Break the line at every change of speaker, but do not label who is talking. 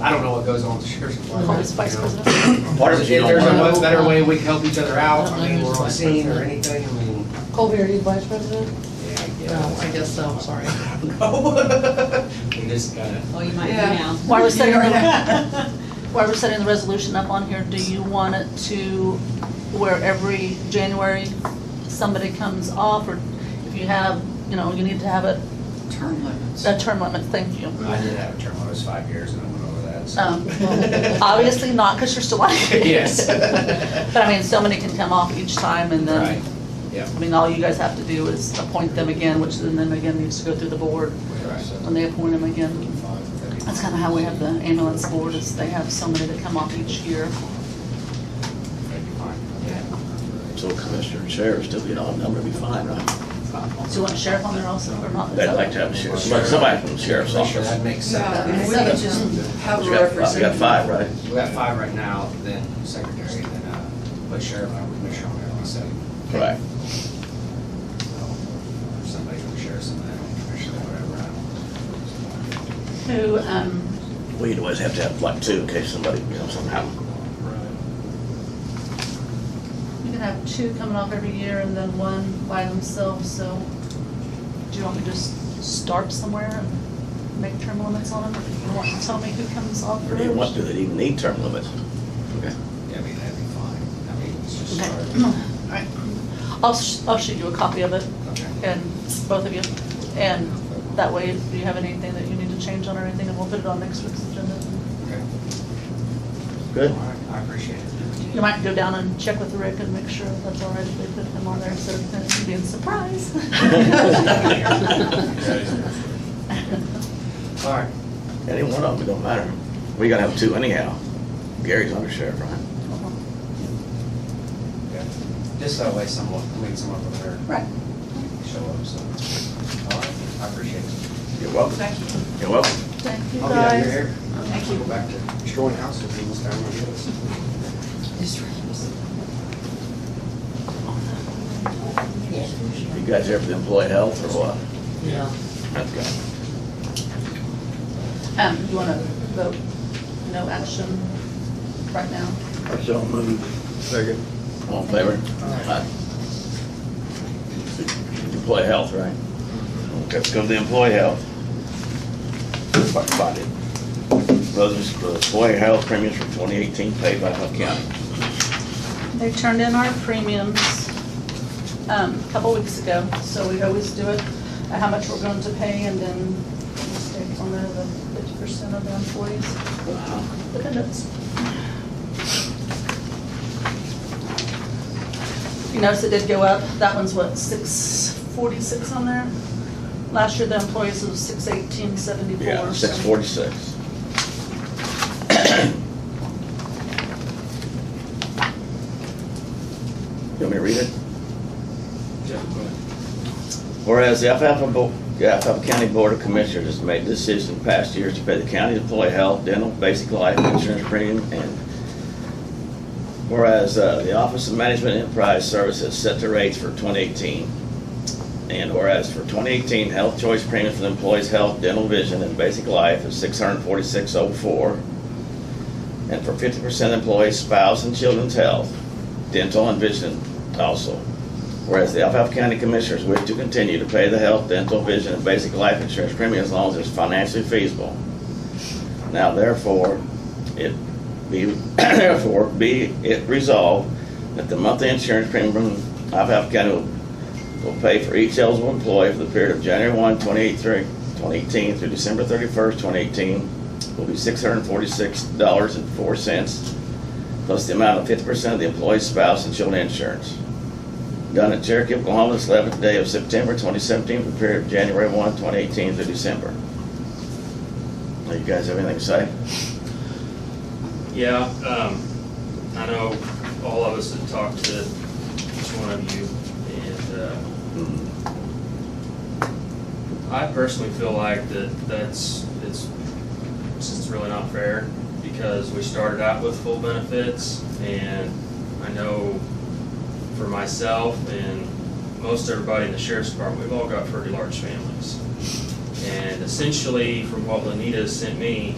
I don't know what goes on with the sheriff's
Call
department.
this vice president.
What if if there's a much better way we can help each other out, I mean, we're on scene or anything, I mean,
Colby, are you vice president?
yeah, I
No, I
guess.
guess so, sorry.
No. We just gotta,
Oh, you might be
Yeah.
now.
Why we're setting,
Yeah.
why we're setting the resolution up on here, do you want it to where every January somebody comes off, or if you have, you know, you need to have it,
Term limits.
a term limit, thank you.
I did have a term, I was five years and I went over that,
Um,
so.
Obviously not, because you're still on it.
Yes.
But I mean, so many can come off each time, and
Right,
then,
yeah,
I mean, all you guys have to do is appoint them again, which then them again needs to go through the board
right.
when they appoint them again.
That'd be-
That's kind of how we have the ambulance board, is they have so many that come off each year.
that'd be fine.
So commissioner and sheriff still get odd number, it'd be fine, right?
Do you want sheriff on there also or not?
They'd like to have a sheriff, somebody- somebody from the sheriff's
Pretty sure
office.
that makes
Yeah, and
sense.
we could just have
We
a
got five- we got
representative.
five, right?
We got five right now, then secretary, then, uh, but sheriff, I'm commissioner on there, like I said.
Right.
So, if Somebody from sheriff, somebody from commissioner, whatever, I don't.
Who, um,
We'd always have to have like two in case somebody, you know, somehow.
you can have two coming off every year and then one by themselves, so do you want me to just start somewhere and make term limits on them? Or do you want to tell me who comes off
Or do you want
first?
to, they even need term limits? Okay.
Yeah, I mean, that'd be fine. I mean, it's just
Okay.
start.
All right. I'll, sh- I'll shoot you a copy of it
Okay.
and both of you. And that way, if you have anything that you need to change on or anything, and we'll put it on next week's agenda.
Okay. All
Good?
right, I appreciate it.
You might go down and check with Rick and make sure that's all right if they put him on there instead of him being surprised.
All right.
Any one of them, it don't matter. We gotta have two anyhow. Gary's under sheriff, right?
Okay. Just that way someone, I mean, someone prepared
Right.
to show up, so. All right, I appreciate it.
You're welcome.
Thank you.
You're welcome.
Thank you
I'll be out
guys.
your hair.
Thank
Go
you.
back to destroying houses in this town. I guess.
You guys there for the employee health or what?
Yeah.
That's good.
Um, you wanna vote no action right now?
I shall move. Second.
All in favor? Aye. Employee health, right? Okay, let's go to the employee health. Fuck, fuck it. Those are the employee health premiums for twenty eighteen paid by Hunt County.
They turned in our premiums, um, a couple weeks ago, so we always do it, uh, how much we're going to pay and then mistakes on there, the fifty percent of the employees. Look at this. You notice it did go up, that one's what, six forty-six on there? Last year the employees was six eighteen seventy-four.
Yeah, six forty-six. You want me to read it?
Yeah, go ahead.
Whereas the Alfalfa, Bo- the Alfalfa County Board of Commissioners has made this decision in past years to pay the county employee health, dental, basic life insurance premium, and whereas uh, the Office of Management Enterprise Services set the rates for 2018, and whereas for 2018, health choice premiums for the employees' health, dental, vision, and basic life is 646.04, and for 50% employees' spouse and children's health, dental, and vision also. Whereas the Alfalfa County Commissioners wish to continue to pay the health, dental, vision, and basic life insurance premium as long as it's financially feasible. Now therefore, it be, therefore, be it resolved that the monthly insurance premium from Alfalfa County will- will pay for each eligible employee for the period of January 1, 2018 2018 through December 31st, 2018 will be $646.04 plus the amount of 50% of the employee's spouse and children insurance done at Cherokee, Oklahoma, this 11th day of September 2017, for the period of January 1, 2018 through December. Now, you guys have anything to say?
Yeah, um, I know all of us have talked to each one of you, and, uh, I personally feel like that, that's, it's, it's just really not fair, because we started out with full benefits, and I know for myself and most everybody in the sheriff's department, we've all got pretty large families. And essentially, from what Lanita sent me,